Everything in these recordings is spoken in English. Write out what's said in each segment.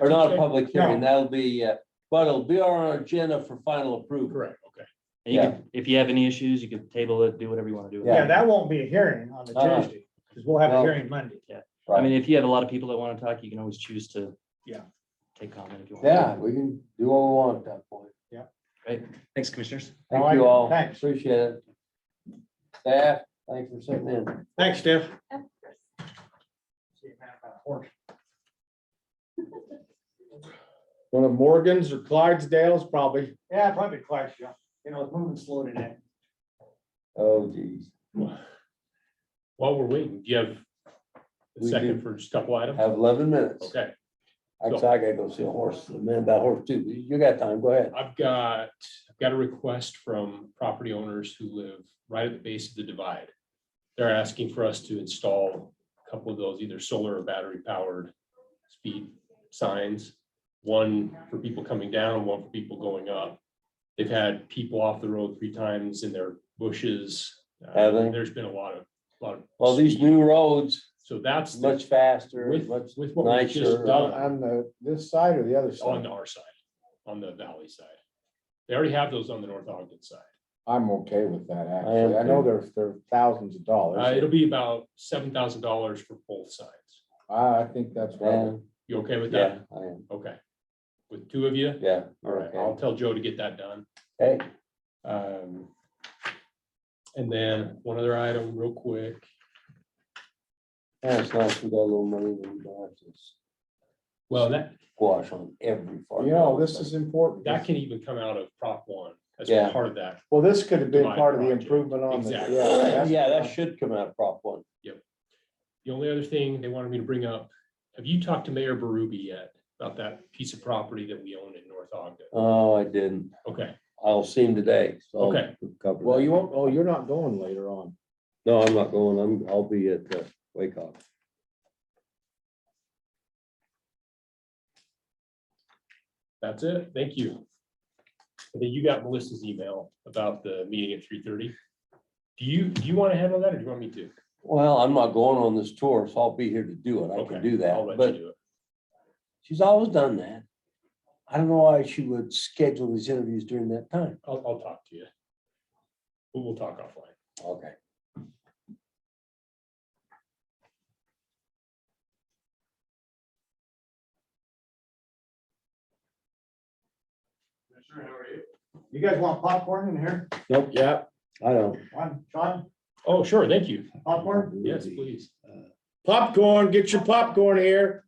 Or not a okay. public hearing, that'll be, uh, but it'll be on our agenda for final approval. Correct, okay. And you can, if you have any issues, you can table it, do whatever you want to do. Yeah. Yeah, that won't be a hearing on the Uh-huh. Tuesday, because we'll have a No. hearing Monday. I mean, if you have a lot of people that want to talk, you can always choose to. Yeah. Take comment if you want. Yeah, we can do what we want at that point. Great. Thanks, commissioners. I like Thank you it. all. Thanks. Appreciate it. Staff, thanks for sitting in. Thanks, Steph. Of course. One of Morgan's or Clydesdale's probably. Yeah, probably Clark's, yeah. You know, it's moving slow today. Oh geez, While we're waiting, do you have a We second for just a couple items? have eleven minutes. Okay, Actually, I gotta go see a horse, the man about horse too. You got time, go ahead. I've got, I've got a request from property owners who live right at the base of the divide. They're asking for us to install a couple of those, either solar or battery powered speed signs. One for people coming down, one for people going up. They've had people off the road three times in their bushes. Uh, Have they? There's been a lot of, lot of. Well, these speed. new roads, So that's. the- much faster, With, much with what we've nicer. uh, just done. On the, this side or the other on side? our side, on the valley side. They already have those on the North Ogden side. I'm okay with that, I am actually. I know too. there's, there are thousands of Oh, Uh, it'll dollars. be about seven thousand dollars for both sides. I, I think that's right. Yeah, You okay with yeah, that? I am, Okay. With two of you? yeah. All right, I'll tell Joe to get that done. Hey, Um. And then one other item real quick. that's nice, we got a little money, that we don't have to Well, that, squash on every farm. You know, this is important. that can even come out of Prop one. That's Yeah. part of that. Well, this could have been My part of the project. improvement on the, yeah. Exactly. Oh, that's- Yeah, that should come out prop one. The only other thing they wanted me to bring up, have you talked to Mayor Berube yet about that piece of property that we own in North Ogden? Oh, I didn't. Okay, I'll see him today. so I'll Okay. cover that. Well, you won't, oh, you're not going later on. No, I'm not going. I'm, I'll be at uh, the Wake Up. that's it. Thank you. I think you got Melissa's email about the meeting at three thirty. Do you, do you want to handle that or do you want me to? Well, I'm not going on this tour, so I'll be here to do it. I Okay, can do I'll that, let you but do it. she's always done that. I don't know why she would schedule these interviews during that time. I'll, I'll talk to you. We'll, we'll talk offline. Okay. You guys want popcorn in here? Nope, yeah, I don't. One, Sean, Oh, sure, thank you. popcorn? Yes, please. uh, Popcorn, get your popcorn here.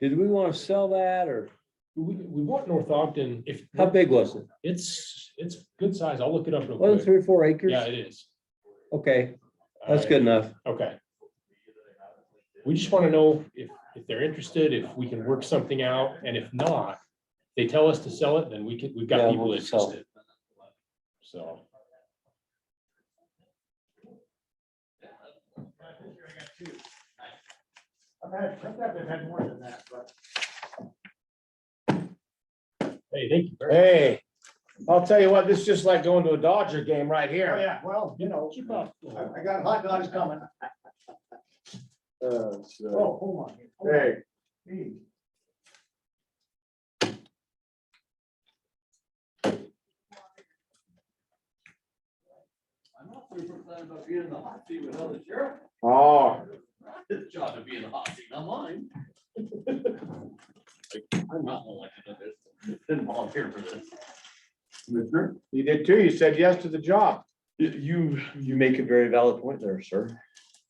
Did we want to sell that or We, we want North Ogden, if, how big was it? it's, it's good size. I'll look it up real Was it quick. three or four acres? Yeah, it is. Okay, that's Uh, good enough. Okay. We just want to know if, if they're interested, if we can work something out, and if not, they tell us to sell it, then we can, we've Yeah, got we'll people just sell interested. So. I've had, sometimes I've had more than that, but. Hey, thank you. very much. Hey, I'll tell you what, this is just like going to a Dodger game right Oh, here. yeah, well, you know, Keep up. I, I got hot dogs coming. Uh, Oh, so- hold on. Hold on. Hey, Hey. I'm not super excited about being in the hot seat with another sheriff. oh, Not his job to be in the hot seat, not mine. I'm not elected to this. Didn't volunteer for this. Commissioner? you did too. You said yes to the job. You, you make a very valid point there, sir.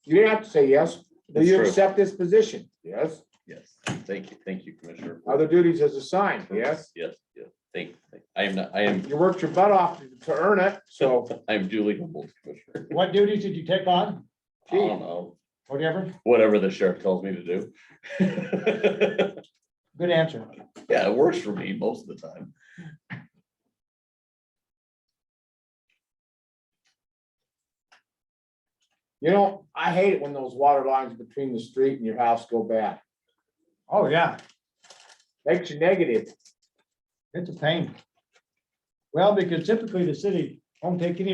You didn't have to say yes. Do That's you true. accept this position? Yes. Yes, thank you, thank you, Commissioner. Other duties as assigned? Yes. Yes, yes, thank, thank- I am, not. I am, You worked your butt off to- to earn it, so. I'm duly humbled, Commissioner. What duties did you take on? I Um, don't know, Whatever. whatever the sheriff tells me to do. Good answer. Yeah, it works for me most of the time. You know, I hate it when those water lines between the street and your house go bad. Oh, yeah, Makes you negative. it's a pain. Well, because typically the city won't take any